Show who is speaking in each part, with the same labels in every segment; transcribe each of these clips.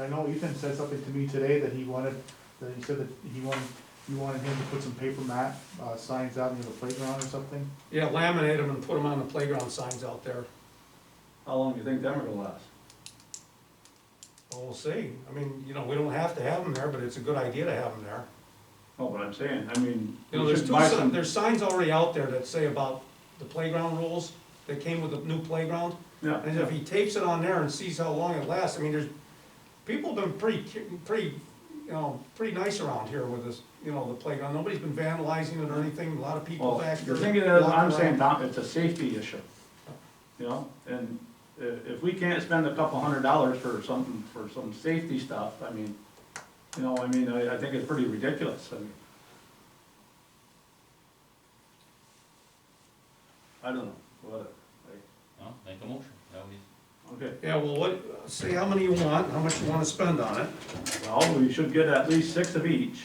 Speaker 1: I know Ethan said something to me today that he wanted, that he said that he wanted, you wanted him to put some paper mat, uh, signs out near the playground or something.
Speaker 2: Yeah, laminate them and put them on the playground signs out there.
Speaker 3: How long do you think them are gonna last?
Speaker 2: Well, we'll see. I mean, you know, we don't have to have them there, but it's a good idea to have them there.
Speaker 3: Oh, but I'm saying, I mean,
Speaker 2: You know,
Speaker 3: you
Speaker 2: there's
Speaker 3: should
Speaker 2: two,
Speaker 3: buy
Speaker 2: si-
Speaker 3: some,
Speaker 2: there's signs already out there that say about the playground rules that came with the new playground. And
Speaker 3: yeah,
Speaker 2: if he tapes it on there and sees how long it lasts, I mean, there's, people have been pretty, cu- pretty, you know, pretty nice around here with this, you know, the playground. Nobody's been vandalizing it or anything. A lot of people
Speaker 3: well,
Speaker 2: back
Speaker 3: the
Speaker 2: here.
Speaker 3: thing is,
Speaker 2: walking
Speaker 3: I'm
Speaker 2: around.
Speaker 3: saying, Tom, it's a safety issue. You know, and i- if we can't spend a couple hundred dollars for something, for some safety stuff, I mean, you know, I mean, I, I think it's pretty ridiculous, I mean. I don't know, whatever, like,
Speaker 4: Well, make a motion, that would be.
Speaker 3: okay,
Speaker 2: Yeah, well, what, say how many you want, how much you wanna spend on it.
Speaker 3: well, we should get at least six of each,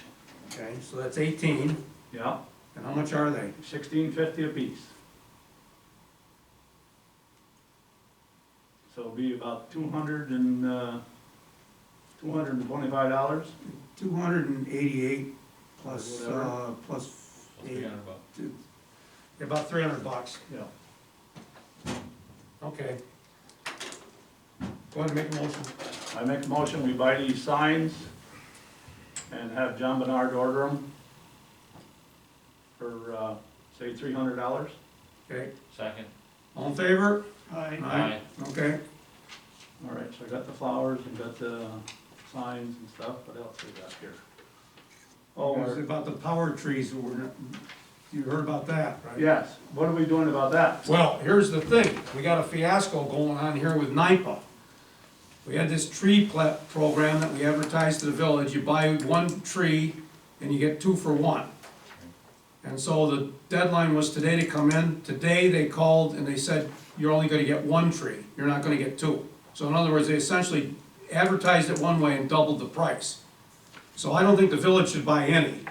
Speaker 2: Okay, so that's eighteen.
Speaker 3: yeah,
Speaker 2: And how much are they?
Speaker 3: sixteen fifty apiece. So it'll be about two hundred and, uh, two hundred and twenty-five dollars.
Speaker 5: Two hundred and eighty-eight plus,
Speaker 3: Whatever.
Speaker 5: uh, plus
Speaker 4: so
Speaker 5: eight,
Speaker 4: 300 bucks.
Speaker 5: two,
Speaker 2: About three hundred bucks.
Speaker 3: Yeah,
Speaker 2: Okay. Go ahead and make a motion.
Speaker 3: I make a motion, we buy these signs and have John Bernard order them for, uh, say, three hundred dollars.
Speaker 2: Okay,
Speaker 4: Second,
Speaker 2: all in favor?
Speaker 5: Aye.
Speaker 4: aye,
Speaker 2: Okay,
Speaker 3: All right, so I got the flowers and got the signs and stuff, what else we got here? Oh,
Speaker 2: It's about the power trees, that were- you heard about that, right?
Speaker 3: yes, what are we doing about that?
Speaker 2: Well, here's the thing, we got a fiasco going on here with NIPA. We had this tree pla- program that we advertised to the village, you buy one tree and you get two for one. And so the deadline was today to come in, today they called and they said, you're only gonna get one tree, you're not gonna get two. So in other words, they essentially advertised it one way and doubled the price. So I don't think the village should buy any.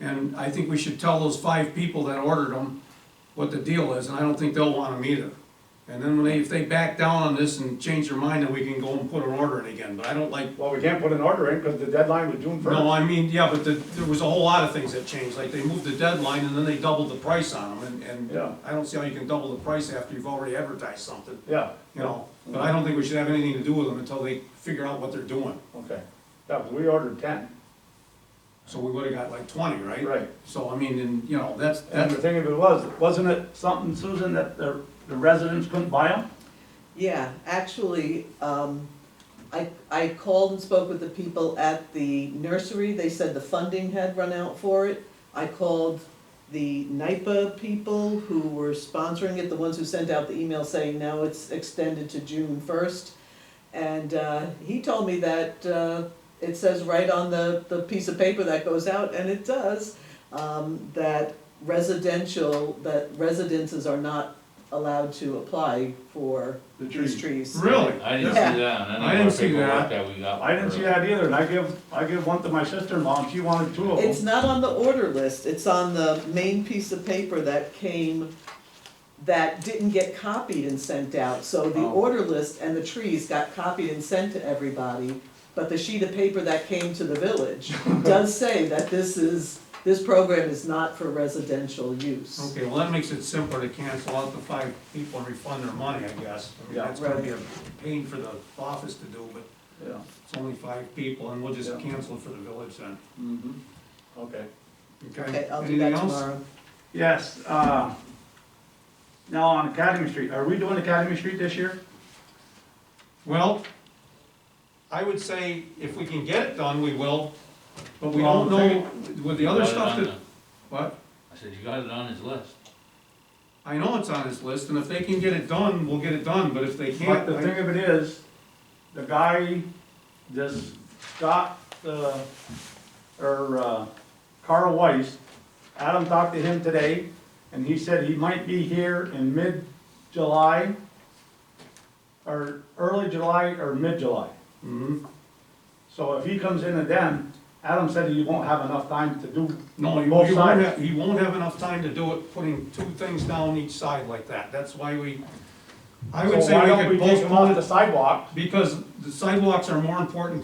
Speaker 2: And I think we should tell those five people that ordered them what the deal is, and I don't think they'll want them either. And then when they, if they back down on this and change their mind, then we can go and put an order in again, but I don't like,
Speaker 1: Well, we can't put an order in, cause the deadline was June
Speaker 2: no, I mean, yeah, but the, there was a whole lot of things that changed, like they moved the deadline and then they doubled the price on them, and,
Speaker 3: Yeah.
Speaker 2: and I don't see how you can double the price after you've already advertised something,
Speaker 3: Yeah,
Speaker 2: you know?
Speaker 3: Mm-hmm.
Speaker 2: But I don't think we should have anything to do with them until they figure out what they're doing.
Speaker 3: okay. Yeah, 'cause we ordered ten.
Speaker 2: So we would've got like twenty, right?
Speaker 3: Right.
Speaker 2: So, I mean, and, you know, that's,
Speaker 3: And the
Speaker 2: that's,
Speaker 3: thing of it was, wasn't it something, Susan, that the, the residents couldn't buy them?
Speaker 6: Yeah, actually, um, I, I called and spoke with the people at the nursery, they said the funding had run out for it. I called the NIPA people who were sponsoring it, the ones who sent out the email saying now it's extended to June first. And, uh, he told me that, uh, it says right on the, the piece of paper that goes out, and it does, um, that residential, that residences are not allowed to apply for
Speaker 3: The
Speaker 6: these
Speaker 3: trees.
Speaker 6: trees.
Speaker 2: really?
Speaker 4: I didn't see
Speaker 6: Yeah.
Speaker 4: that, on any
Speaker 2: I
Speaker 4: of
Speaker 2: didn't
Speaker 4: our
Speaker 2: see
Speaker 4: paperwork
Speaker 2: that.
Speaker 4: that we got.
Speaker 3: I didn't see that either, and I give, I give one to my sister-in-law, and she wanted two of
Speaker 6: It's
Speaker 3: them.
Speaker 6: not on the order list, it's on the main piece of paper that came, that didn't get copied and sent out. So the
Speaker 3: Oh.
Speaker 6: order list and the trees got copied and sent to everybody, but the sheet of paper that came to the village does say that this is, this program is not for residential use.
Speaker 2: Okay, well, that makes it simpler to cancel out the five people and refund their money, I guess. I mean,
Speaker 3: Yeah.
Speaker 2: that's gonna be a pain for the office to do, but
Speaker 3: Yeah.
Speaker 2: it's only five people, and we'll just
Speaker 3: Yeah.
Speaker 2: cancel it for the village then,
Speaker 3: Mm-hmm. Okay.
Speaker 2: okay?
Speaker 6: Okay, I'll do
Speaker 2: Anything
Speaker 6: that
Speaker 2: else?
Speaker 6: tomorrow.
Speaker 3: Yes, uh, now on Academy Street, are we doing Academy Street this year?
Speaker 2: Well, I would say if we can get it done, we will, but we
Speaker 3: Well,
Speaker 2: don't
Speaker 3: the
Speaker 2: know with the other
Speaker 4: Got it
Speaker 2: stuff
Speaker 4: on
Speaker 2: that, what?
Speaker 4: the- I said, you got it on his list.
Speaker 2: I know it's on his list, and if they can get it done, we'll get it done, but if they
Speaker 3: But
Speaker 2: can't,
Speaker 3: the
Speaker 2: I-
Speaker 3: thing of it is, the guy, this Scott, uh, or, uh, Carl Weiss, Adam talked to him today, and he said he might be here in mid-July, or early July or mid-July.
Speaker 2: Mhm.
Speaker 3: So if he comes in and then, Adam said he won't have enough time to do,
Speaker 2: No, he he
Speaker 3: Both
Speaker 2: won't
Speaker 3: sides.
Speaker 2: have, he won't have enough time to do it, putting two things down each side like that, that's why we, I would
Speaker 3: so why
Speaker 2: say
Speaker 3: don't
Speaker 2: we
Speaker 3: we
Speaker 2: could
Speaker 3: take him off
Speaker 2: postpone
Speaker 3: the
Speaker 2: it,
Speaker 3: sidewalk?
Speaker 2: because the sidewalks are more important